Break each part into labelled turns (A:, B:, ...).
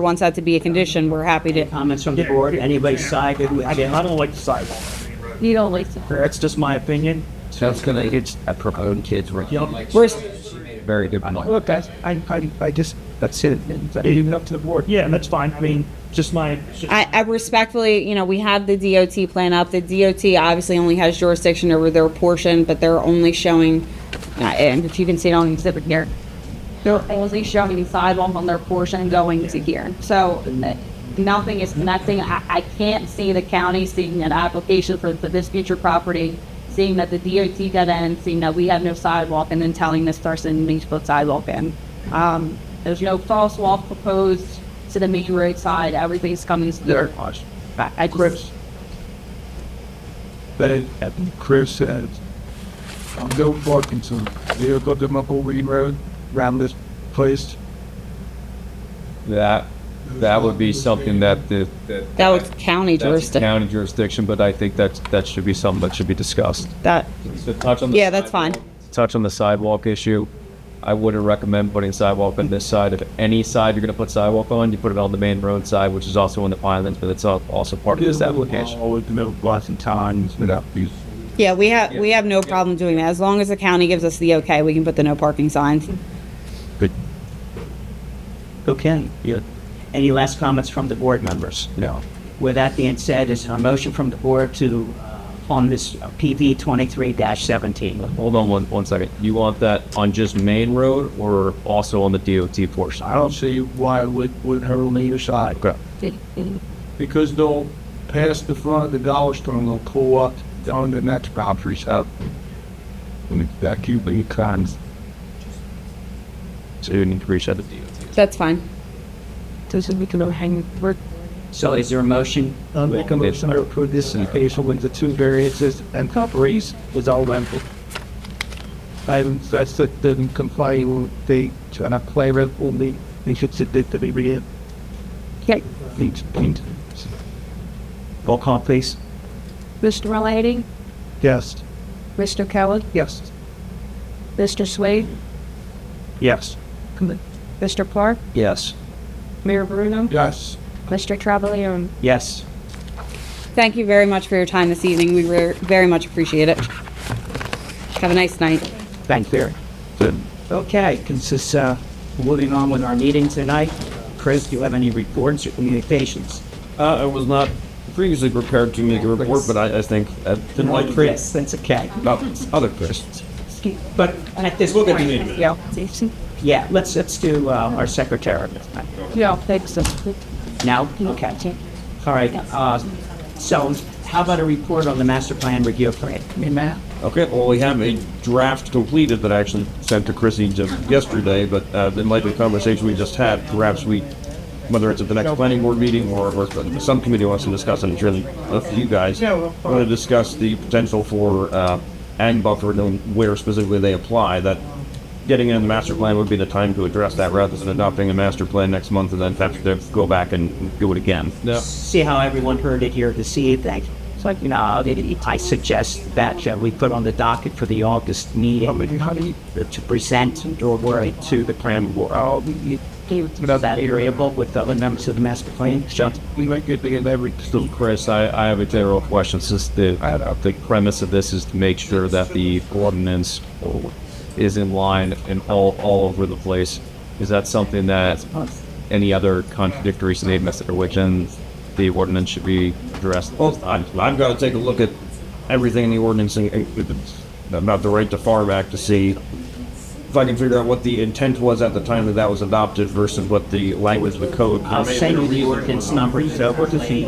A: wants that to be a condition, we're happy to.
B: Comments from the board, anybody sided with
C: I
B: it?
C: mean, I don't like the sidewalk.
A: You don't like to.
C: That's just my opinion.
D: Sounds gonna it's a proponent kids were
A: We're, s-
D: very good. point.
C: Look, that's, I, I, I just,
D: That's it.
C: leave it up to the board. Yeah, that's fine. I mean, just my, it's just-
A: I, I respectfully, you know, we have the DOT plan up. The DOT obviously only has jurisdiction over their portion, but they're only showing, uh, and if you can see it on the exhibit here, they're only showing the sidewalk on their portion going to here. So uh, nothing is connecting. I, I can't see the county seeing an application for, for this future property, seeing that the DOT got in, seeing that we have no sidewalk, and then telling this person needs to put sidewalk in. Um, there's no false wall proposed to the main road side. Everything's coming to their
C: Gosh.
A: I I just,
C: Chris.
E: that uh, Chris says. I'm Bill Parkinson. Here go to Mapleweed Road, around this place.
F: That, that would be something that the, that-
A: that was county
F: that's
A: jurisdiction.
F: county jurisdiction, but I think that's, that should be something that should be discussed.
A: That,
F: To touch on the
A: yeah, that's fine.
F: Touch on the sidewalk issue, I wouldn't recommend putting sidewalk on this side. If any side you're gonna put sidewalk on, you put it on the main road side, which is also in the Pines, but it's al- also part of this application.
E: All the middle blocks and times without these.
A: Yeah, we have, we have no problem doing that. As long as the county gives us the okay, we can put the no parking signs.
B: Okay. yeah. Any last comments from the board members?
E: No.
B: With that being said, is there a motion from the board to, uh, on this uh, PV twenty-three seventeen?
F: Hold on one, one second. You want that on just main road or also on the DOT portion?
E: I don't see why it would, would hurt on either side.
F: Okay.
E: Because they'll pass the front of the Dollar Store and they'll pull up on the next boundary south. And it's that cute little cons.
F: So you need to reach out to DOT.
A: That's fine.
B: So is there a motion?
E: I make a motion to approve this in case with the two variances and copies was all rental. And that's that didn't comply with the, and I play with only, they should sit there to be read.
G: Okay.
E: Needs paint.
B: Roll call, please.
G: Mr. Delaney,
E: Yes.
G: Mr. Kelly,
E: Yes.
G: Mr. Swade,
B: Yes.
G: Mr. Park,
B: Yes.
G: Mayor Bruno,
E: Yes.
G: Mr. Travaglione.
B: Yes.
A: Thank you very much for your time this evening. We re- very much appreciate it. Have a nice night.
B: Thank you. Okay, consists, uh, moving on with our meeting tonight. Chris, do you have any reports or communications?
F: Uh, I was not previously prepared to make a report, but I, I think I didn't like Chris.
B: Yes, that's okay.
F: About other questions.
B: But at this
F: We'll
B: point,
F: get to the meeting.
B: yeah, yeah, let's, let's do, uh, our secretary.
G: Yeah, thanks.
B: Now, okay. All right, uh, so how about a report on the master plan review plan? Matt?
F: Okay, well, we have a draft completed that I actually sent to Chrissy just yesterday, but uh, in light of the conversation we just had, perhaps we, whether it's at the next planning board meeting or, or some committee wants to discuss, and it's really up to you guys, want to discuss the potential for uh, ag buffer and where specifically they apply, that getting in the master plan would be the time to address that rather than adopting a master plan next month and then have to go back and do it again. Yeah.
B: see how everyone heard it here this evening. It's like, you know, it- it- I suggest that uh, we put on the docket for the August meeting to present or worry to the plan board. Oh, you- you- Is that agreeable with the other members of the master plan? Sure.
E: We might get to get every,
F: So, Chris, I, I have a general question. Since the the premise of this is to make sure that the ordinance is in line and all all over the place, is that something that any other contradictory statements that are within the ordinance should be addressed? Well, I, I've got to take a look at everything in the ordinance and- and about the right to farm act to see if I can figure out what the intent was at the time that that was adopted versus what the language of the code.
B: I'll send you the ordinance number. So what is the,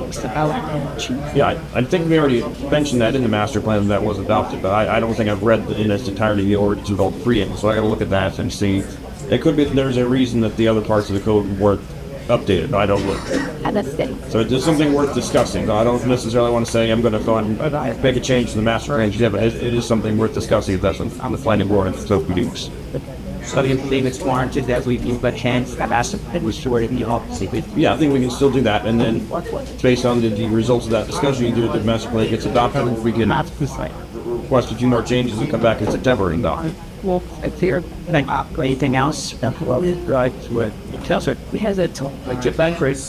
F: Yeah, I, I think we already mentioned that in the master plan that was adopted, but I, I don't think I've read in its entirety the ordinance involved preamble, so I gotta look at that and see. It could be that there's a reason that the other parts of the code weren't updated, I don't look. So there's something worth discussing, I don't necessarily wanna say I'm gonna go out and make a change to the master plan, yeah, but it, it is something worth discussing if that's on the planning board and so meetings.
B: so you believe it's warranted that we give a hand to the master plan restored in the office?
F: Yeah, I think we can still do that, and then based on the, the results of that discussion, you do it, the master plan gets adopted, we can request a few more changes and come back in September and adopt. it.
B: Well, uh, it's here. Anything else?
E: right, with
B: Councilor, we had that talk, like, Japan, Chris.